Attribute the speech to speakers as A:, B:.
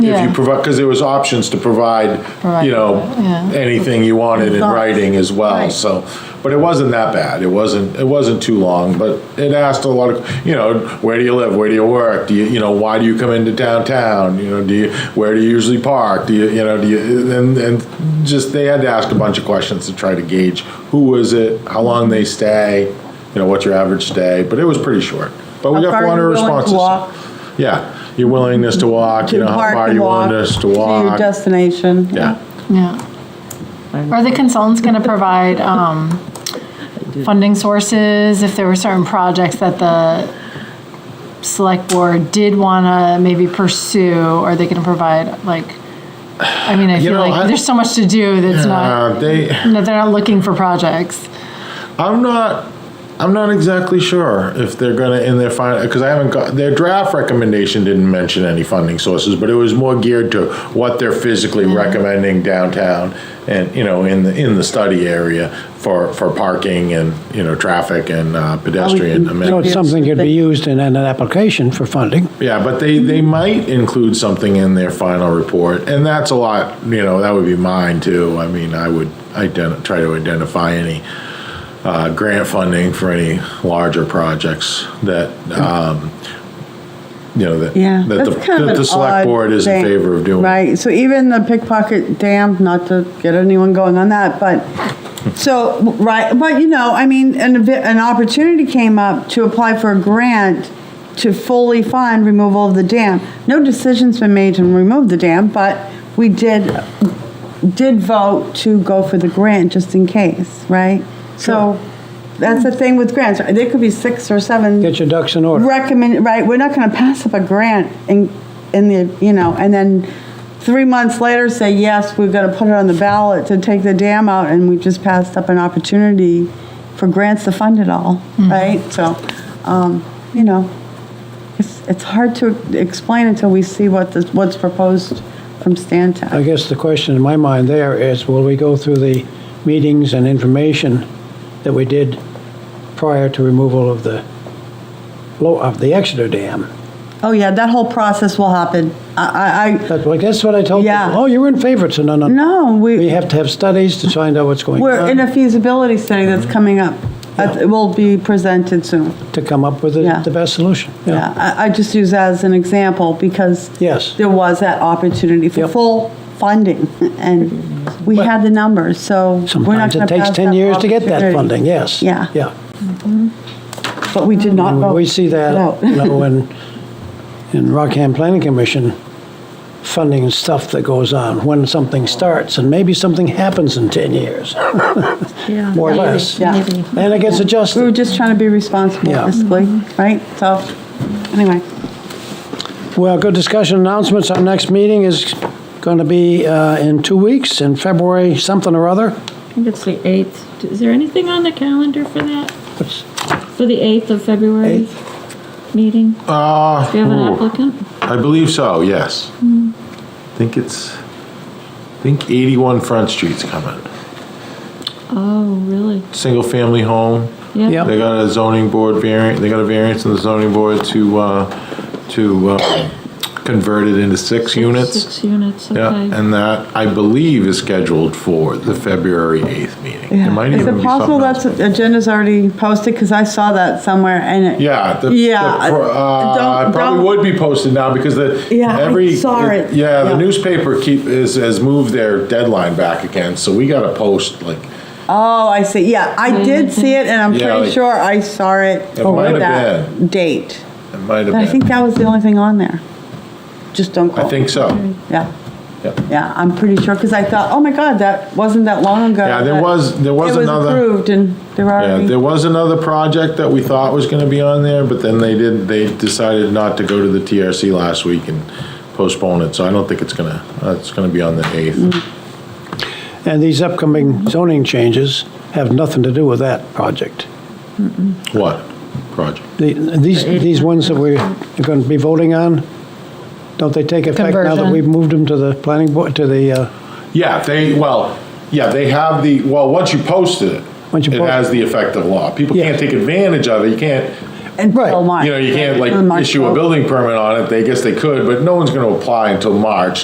A: If you
B: Yeah.
A: provide, because there was options to provide,
B: Provide,
A: you know,
B: yeah.
A: anything you wanted in
C: Thoughts.
A: writing as well,
C: Right.
A: so. But it wasn't that bad, it wasn't, it wasn't too long, but it asked a lot of, you know, where do you live, where do you work, do you, you know, why do you come into downtown, you know, do you, where do you usually park, do you, you know, do you, and, and just, they had to ask a bunch of questions to try to gauge who was it, how long they stay, you know, what's your average stay, but it was pretty short. But we
C: How
A: got
C: far
A: four hundred
C: are you willing
A: responses.
C: to walk?
A: Yeah, your willingness to walk, you know,
C: To
A: how
C: park
A: far
C: and
A: you
C: walk
A: want us to
C: To your
A: walk.
C: destination.
A: Yeah,
B: Yeah. Are the consultants going to provide um, funding sources if there were certain projects that the select board did want to maybe pursue? Are they going to provide like, I mean, I
A: You
B: feel
A: know, I-
B: like there's so much to do that's not,
A: Uh, they,
B: that they're not looking for projects.
A: I'm not, I'm not exactly sure if they're gonna, in their final, because I haven't got, their draft recommendation didn't mention any funding sources, but it was more geared to what they're physically
C: Mm-hmm.
A: recommending downtown and, you know, in the, in the study area for, for parking and, you know, traffic and uh, pedestrian
D: So
A: amenities.
D: it's something could be used in an application for funding.
A: Yeah, but they, they might include something in their final report, and that's a lot, you know, that would be mine too. I mean, I would ident, try to identify any, uh, grant funding for any larger projects that, um, you know, that.
C: Yeah.
A: That the,
C: that's kind of
A: that
C: an
A: the select
C: odd
A: board is in
C: thing,
A: favor of doing.
C: Right, so even the pickpocket dam, not to get anyone going on that, but, so, right, but you know, I mean, an, ev- an opportunity came up to apply for a grant to fully fund removal of the dam. No decision's been made to remove the dam, but we did, did vote to go for the grant just in case, right? So, that's the thing with grants, there could be six or seven
D: Get your ducks in order.
C: recommend, right, we're not gonna pass up a grant in, in the, you know, and then three months later say, yes, we've gotta put it on the ballot to take the dam out, and we just passed up an opportunity for grants to fund it all,
D: Hmm.
C: right? So, um, you know, it's, it's hard to explain until we see what the, what's proposed from Stan
D: I guess the question in my mind there is, will we go through the meetings and information that we did prior to removal of the, lo- of the Exeter Dam?
C: Oh, yeah, that whole process will happen. I, I, I,
D: That's, like, that's what I told
C: Yeah.
D: people, oh, you were in favor, so no, no.
C: no, we.
D: We have to have studies to find out what's going
C: We're in
D: on,
C: a feasibility study that's
D: Mm-hmm.
C: coming up. Uh, It will be presented soon.
D: to come up with
C: Yeah.
D: the, the best solution.
C: Yeah, I, I just use that as an example because
D: Yes.
C: there was that opportunity for
D: Yep.
C: full funding and we had the numbers, so. we're not
D: Sometimes
C: gonna
D: it takes
C: pass
D: 10
C: up
D: years to get that
C: opportunity.
D: funding, yes.
C: Yeah.
D: Yeah.
C: But we did not vote.
D: We see that,
C: out.
D: you know, in, in Rockham Planning Commission, funding and stuff that goes on, when something starts, and maybe something happens in 10 years, more or less.
C: Yeah.
D: And it gets
C: We were
D: adjusted.
C: just trying to be responsible
D: Yeah. Mm-hmm.
C: fiscally, right? So, anyway.
D: Well, good discussion announcements. Our next meeting is going to be uh, in two weeks, in February, something or other.
E: I think it's the 8th. Is there anything on the calendar for that?
D: What's-
E: For the 8th of February meeting?
A: Uh,
E: Do you have an Hmm.
A: ooh,
E: applicant?
A: I believe so, yes. I Think it's, I think eighty-one Front Street's coming,
E: Oh, really?
A: single-family home.
D: Yep.
A: They got a zoning board variant, they got a variance in the zoning board to, uh, to uh, convert it into six units.
E: Six units,
A: Yeah,
E: okay.
A: and that, I believe, is scheduled for the February 8th meeting. It might
C: Is
A: even
C: it
A: be
C: possible
A: something
C: that's,
A: else.
C: agenda's already posted? Because I saw that somewhere and it.
A: Yeah. the- the-
C: Yeah,
A: for- uh,
C: don't-
A: It probably
C: don't-
A: would be posted now because the.
C: Yeah, I
A: every-
C: saw it.
A: Yeah, the
C: Yeah.
A: newspaper keep, is, has moved their deadline back again, so we gotta post like,
C: Oh, I see. Yeah, I did
D: Mm-hmm.
C: see it, and I'm
A: Yeah,
C: pretty
A: like-
C: sure I saw it.
A: It might have
C: that Date.
A: it might
C: But I
A: have
C: think
A: been.
C: that was the only thing on there. Just don't
A: I
C: quote.
A: think so.
C: Yeah,
A: Yeah.
C: yeah, I'm pretty sure, because I thought, oh my God, that wasn't that long ago.
A: Yeah, there
C: that
A: was- there was another-
C: It was approved, and there
A: Yeah,
C: already.
A: there was another project that we thought was gonna be on there, but then they did, they decided not to go to the TRC last week and postpone it, so I don't think it's gonna, uh, it's gonna be on the eighth.
D: Mm. And these upcoming zoning changes have nothing to do with that project.
A: What project?
D: The- These, these ones that we're going to be voting on, don't they take effect now that
B: Conversion.
D: we've moved them to the planning board, to the, uh,
A: Yeah, they, well, yeah, they have the, well, once you posted it,
D: Once you
A: it
D: post-
A: has the effect of law. People
D: Yeah.
A: can't take advantage of it, you can't
C: until
D: Right.
C: March.
A: You know, you can't
C: On
A: like
C: March
A: issue a
C: 12th.
A: building permit on it, they guess they could, but no one's gonna apply until March.